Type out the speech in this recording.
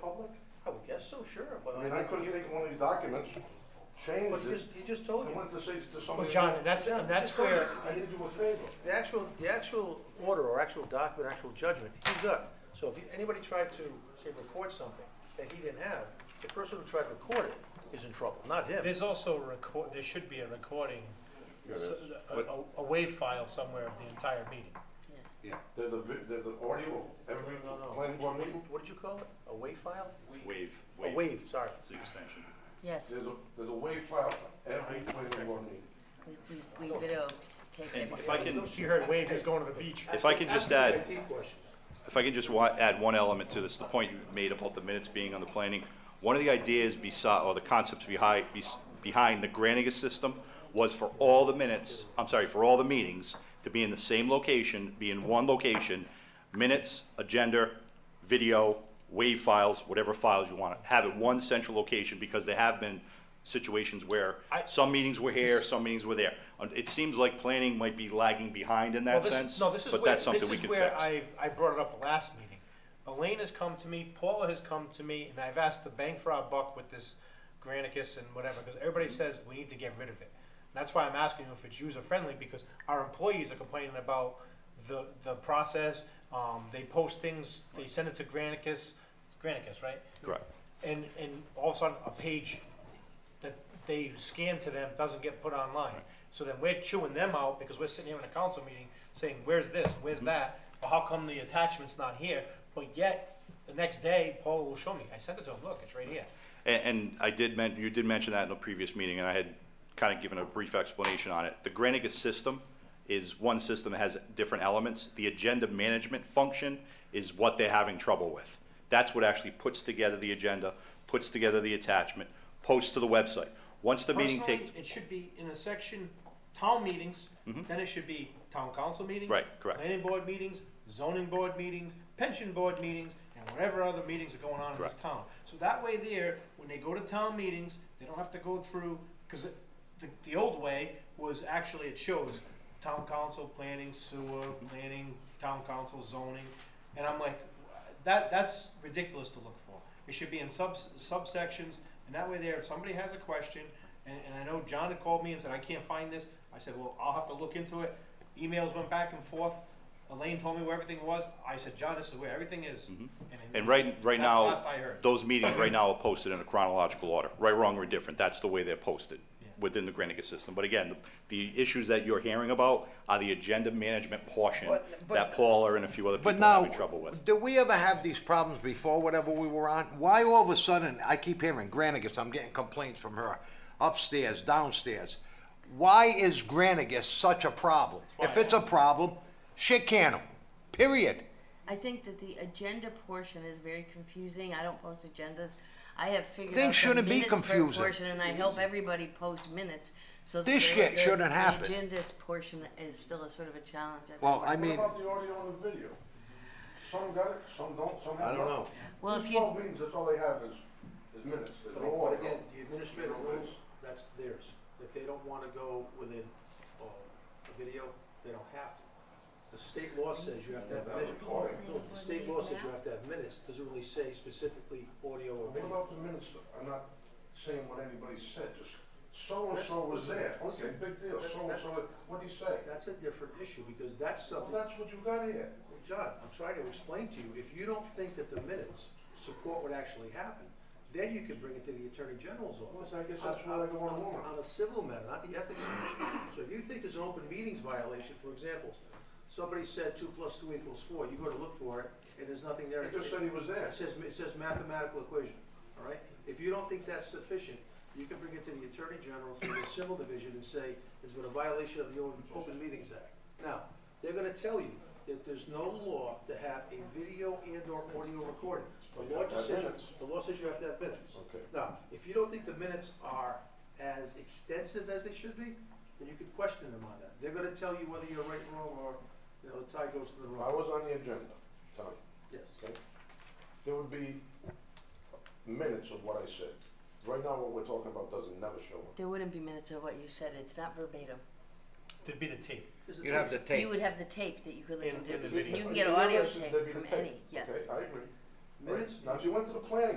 public? I would guess so, sure, but. I mean, I couldn't take one of these documents, But change he it, just, he just told and you. went to say to somebody. Well, John, and that's, uh, and that's where, I did you a favor. The actual, the actual order or actual document, actual judgment, he's got. So if you- anybody tried to, say, record something that he didn't have, the person who tried to record it is in trouble, not him. There's also a record, there should be a recording, s- a, What- a- a wave file somewhere of the entire meeting. Yeah, There's a, vi- there's an audio of every No, no, no. planning board What meeting. did- what did you call it? A WAV file? wave, A wave, WAV, sorry. it's an extension. Yes, There's a, there's a wave file for every planning board meeting. we, we, we video tape And every if I can, You heard wave, who's going to the beach. if I can just add, Key question. if I can just wa- add one element to this, the point you made about the minutes being on the planning, one of the ideas beside, or the concepts behind, behind the Granicus system was for all the minutes, I'm sorry, for all the meetings to be in the same location, be in one location, minutes, agenda, video, wave files, whatever files you want, have it one central location, because there have been situations where I- some meetings were here, some meetings were there. Uh, It seems like planning might be lagging behind in that Well, this- sense, No, this is but where, that's something this we is can fix. where I, I brought it up last meeting. Elaine has come to me, Paula has come to me, and I've asked the bang for our buck with this Granicus and whatever, because everybody Mm-hmm. says we need to get rid of it. That's why I'm asking you if it's user-friendly, because our employees are complaining about the, the process. Um, they post things, they send it to Granicus, it's Granicus, right? Correct. and and all of a sudden a page that they scan to them doesn't get put online. So then we're chewing them out because we're sitting here in a council meeting saying, "Where's this? Where's Mm-hmm. that? Well, how come the attachment's not here?" But yet the next day, Paul will show me. I sent it to him. Look, it's right here. And, and I did men, you did mention that in a previous meeting, and I had kind of given a brief explanation on it. The Granicus system is one system that has different elements. The agenda management function is what they're having trouble with. That's what actually puts together the agenda, puts together the attachment, posts to the website. Once the meeting Personally, takes, Mm-hmm. It should be in a section, town meetings, then it should be town council meetings. Right, correct. Planning board meetings, zoning board meetings, pension board meetings, and whatever other meetings are going on in this Correct. town. So that way there, when they go to town meetings, they don't have to go through, cause it- the, the old way was actually, it shows town council, planning, sewer, planning, town council, zoning. And I'm like, that, that's ridiculous to look for. It should be in subs, subsections, and that way there, if somebody has a question, and, and I know John had called me and said, I can't find this, I said, well, I'll have to look into it. Emails went back and forth, Elaine told me where everything was, I said, John, this is where everything is. and right, That's the right now, last I heard. those meetings right now are posted in a chronological order. Right, wrong, or indifferent, that's the way they're posted within the Granicus system. But again, the, the issues that you're hearing about are the agenda management portion But- but- that Paula and a few other people But are now, having trouble with. do we ever have these problems before whatever we were on? Why all of a sudden, I keep hearing Granicus, I'm getting complaints from her upstairs, downstairs. Why is Granicus such a problem? If it's a problem, shit can 'em, period. I think that the agenda portion is very confusing. I don't post agendas. I have figured Things out shouldn't the be minutes per confusing. portion, and I help everybody post minutes. So that This the- shit the- shouldn't happen. The agendas portion is still a sort of a challenge. I Well, think. I What mean, about the audio and the video? Some got it, some don't, some I have not. don't know. Well, if These you- twelve meetings, that's all they have is, is minutes, there's But no but audio. again, the administrative rules, that's theirs. If they don't wanna go within, uh, a video, they don't have to. The state law says you have to have That's minutes. recording. No, the state law says you have to have minutes, doesn't really say specifically audio or What video. about the minutes? I'm not saying what anybody said, just so-and-so was there, okay, big deal, so-and-so, what'd he say? That's a different issue, because that's Well, something, that's what you got here. Well, John, I'm trying to explain to you, if you don't think that the minutes support what actually happened, then you could bring it to the Attorney General's office. Well, I guess that's where I go on the warrant. On a civil matter, not the ethics matter. So if you think there's an open meetings violation, for example, somebody said two plus two equals four, you go to look for it, and there's nothing there. He just said he was there. It says, it says mathematical equation, all right? If you don't think that's sufficient, you can bring it to the Attorney General, to the Civil Division, and say, it's been a violation of the Open- Open Meetings Act. Now, they're gonna tell you that there's no law to have a video and/or audio recording. The law have to have just says, minutes. the law says you have to have minutes. Okay. Now, if you don't think the minutes are as extensive as they should be, then you could question them on that. They're gonna tell you whether you're right, wrong, or, you know, the tie goes to the I wrong. was on the agenda, Tony, Yes. okay? There would be minutes of what I said. Right now, what we're talking about doesn't never show up. There wouldn't be minutes of what you said. It's not verbatim. There'd be the tape. Is it- You'd have to You tape. would have the tape that you could listen And- to. and the You- video. You can get You audio guys said tape there'd be from the tape. any, yes. Okay, I agree. Minutes, Now, if you went to the planning